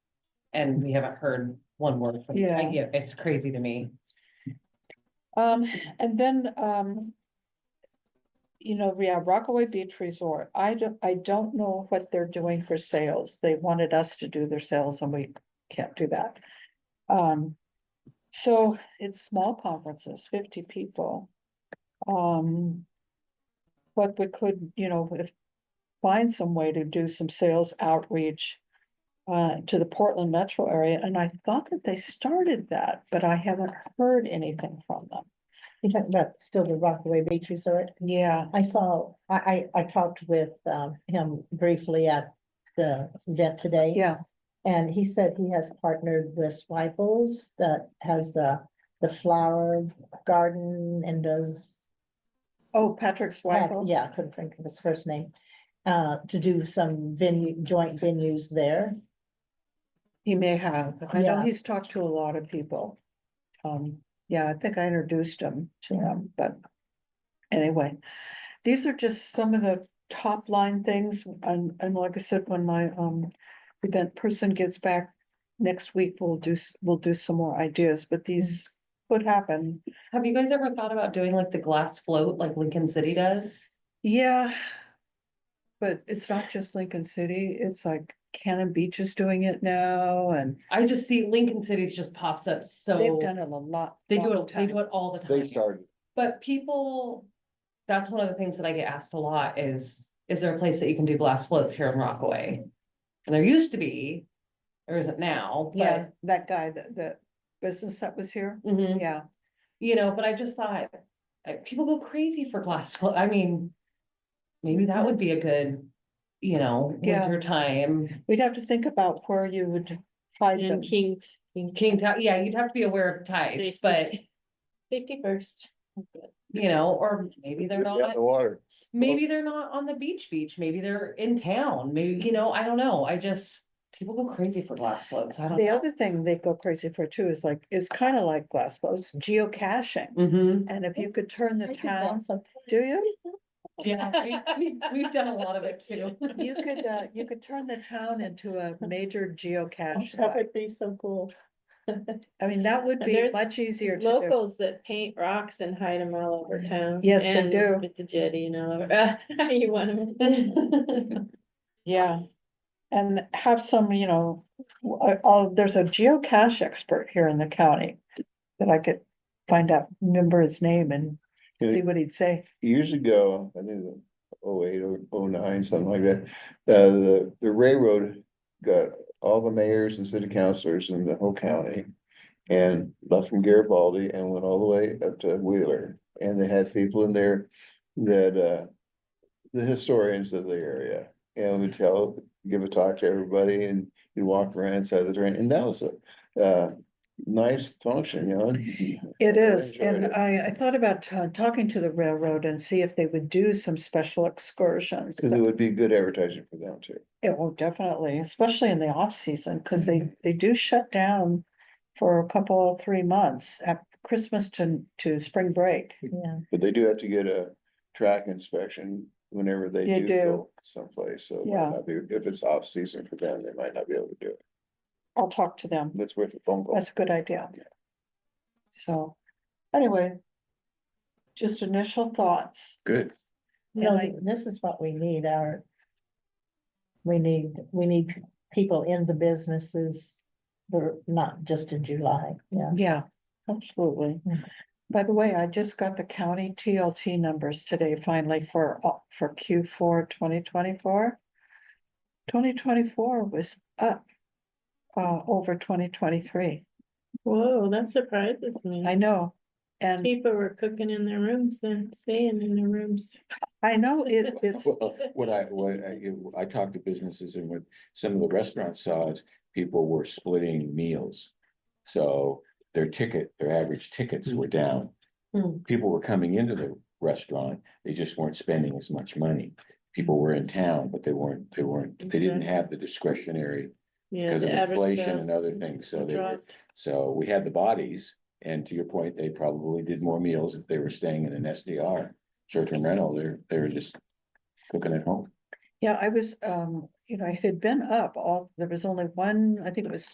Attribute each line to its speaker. Speaker 1: and we haven't heard one word from,
Speaker 2: Yeah.
Speaker 1: I get, it's crazy to me.
Speaker 2: Um, and then, um. You know, yeah, Rockaway Beach Resort, I don't, I don't know what they're doing for sales. They wanted us to do their sales and we can't do that. Um, so it's small conferences, fifty people. Um. But we could, you know, if, find some way to do some sales outreach. Uh, to the Portland metro area, and I thought that they started that, but I haven't heard anything from them.
Speaker 3: You're talking about still the Rockaway Beach Resort?
Speaker 2: Yeah,
Speaker 3: I saw, I, I, I talked with, um, him briefly at the event today.
Speaker 2: yeah,
Speaker 3: And he said he has partnered with Swifels that has the, the flower garden and those.
Speaker 2: oh, Patrick Swagel,
Speaker 3: Yeah, couldn't think of his first name, uh, to do some venue, joint venues there.
Speaker 2: he may have, I know
Speaker 3: Yeah.
Speaker 2: he's talked to a lot of people. Um, yeah, I think I introduced him to him, but anyway. These are just some of the top line things, and, and like I said, when my, um, event person gets back. Next week, we'll do, s- we'll do some more ideas, but these could happen.
Speaker 1: Have you guys ever thought about doing like the glass float like Lincoln City does?
Speaker 2: Yeah. But it's not just Lincoln City, it's like Cannon Beach is doing it now and
Speaker 1: I just see Lincoln City's just pops up
Speaker 2: they've
Speaker 1: so,
Speaker 2: done it a lot.
Speaker 1: they do
Speaker 2: long
Speaker 1: it, they
Speaker 2: time.
Speaker 1: do it all the time.
Speaker 4: They started,
Speaker 1: But people, that's one of the things that I get asked a lot is, is there a place that you can do glass floats here in Rockaway? And there used to be, there isn't now,
Speaker 2: Yeah,
Speaker 1: but,
Speaker 2: that guy, that the business that was here,
Speaker 1: Mhm,
Speaker 2: yeah,
Speaker 1: you know, but I just thought, uh, people go crazy for glass float, I mean, maybe that would be a good, you know,
Speaker 2: Yeah.
Speaker 1: winter time,
Speaker 2: we'd have to think about where you would hide them.
Speaker 5: And King, King
Speaker 1: King Tide, yeah, you'd have to be aware of tides, but,
Speaker 5: fifty first.
Speaker 1: you know, or maybe they're
Speaker 4: get out
Speaker 1: not.
Speaker 4: in the water.
Speaker 1: Maybe they're not on the beach beach, maybe they're in town, maybe, you know, I don't know, I just, people go crazy for glass floats, I don't
Speaker 2: The
Speaker 1: know.
Speaker 2: other thing they go crazy for too is like, it's kind of like glass Glassbow's geocaching,
Speaker 1: Mhm.
Speaker 2: and if you could turn the
Speaker 3: I did that
Speaker 2: town,
Speaker 3: sometime.
Speaker 2: do you?
Speaker 1: yeah, we, we- we've done a lot of it too.
Speaker 2: You could, uh, you could turn the town into a major geocache
Speaker 3: That
Speaker 2: site,
Speaker 3: would be so cool.
Speaker 2: I mean, that would be
Speaker 5: There's
Speaker 2: much easier to do.
Speaker 5: Locals that paint rocks and hide them all over town.
Speaker 2: Yes, they
Speaker 5: and
Speaker 2: do.
Speaker 5: With the jetty and all over, you want them.
Speaker 2: Yeah, and have some, you know, w- uh, there's a geocache expert here in the county that I could find out, remember his name and
Speaker 4: Yeah.
Speaker 2: see what he'd say.
Speaker 4: Years ago, I think it was 08 or 09, something like that, uh, the, the railroad got all the mayors and city councilors in the whole county. And left from Garibaldi and went all the way up to Wheeler, and they had people in there that, uh. The historians of the area, and would tell, give a talk to everybody, and you walk around inside the train, and that was a, uh, nice function, you know?
Speaker 2: It is,
Speaker 4: enjoyed
Speaker 2: and
Speaker 4: it.
Speaker 2: I, I thought about uh, talking to the railroad and see if they would do some special excursions.
Speaker 4: Cause it would be good advertising for them too.
Speaker 2: It will definitely, especially in the off season, because they, they do shut down for a couple, three months at Christmas to, to spring break.
Speaker 3: Yeah,
Speaker 4: But they do have to get a track inspection whenever they
Speaker 2: They
Speaker 4: do
Speaker 2: do.
Speaker 4: go someplace, so. it might
Speaker 2: Yeah.
Speaker 4: not be- If it's off season for them, they might not be able to do it.
Speaker 2: I'll talk to them.
Speaker 4: That's worth a phone call.
Speaker 2: That's a good idea.
Speaker 4: Yeah.
Speaker 2: So, anyway. Just initial thoughts.
Speaker 4: Good.
Speaker 2: And
Speaker 3: no,
Speaker 2: I-
Speaker 3: this is what we need, our. We need, we need people in the businesses, we're not just in July, yeah.
Speaker 2: Yeah, absolutely.
Speaker 3: Mm.
Speaker 2: By the way, I just got the county TLT numbers today finally for, all- for Q four twenty twenty-four. Twenty twenty-four was up, uh, over twenty twenty-three.
Speaker 5: Whoa, that surprises me.
Speaker 2: I know. And
Speaker 5: People were cooking in their rooms then, staying in their rooms.
Speaker 2: I know it, it's,
Speaker 6: Well, what I, what I, you- I talked to businesses and what some of the restaurants saw is people were splitting meals. So their ticket, their average tickets
Speaker 5: Mm-hmm.
Speaker 6: were down.
Speaker 1: Hmm.
Speaker 6: People were coming into the restaurant, they just weren't spending as much money. People were in town, but they weren't, they weren't, they didn't
Speaker 5: Exactly.
Speaker 6: have the discretionary
Speaker 5: Mm-hmm. Yeah,
Speaker 6: because of
Speaker 5: the average
Speaker 6: inflation
Speaker 5: sales
Speaker 6: and other things, so they were.
Speaker 5: dropped.
Speaker 6: So we had the bodies, and to your point, they probably did more meals if they were staying in an SDR, short-term rental, they're, they're just cooking at home.
Speaker 2: yeah, I was, um, you know, it had been up all, there was only one, I think it was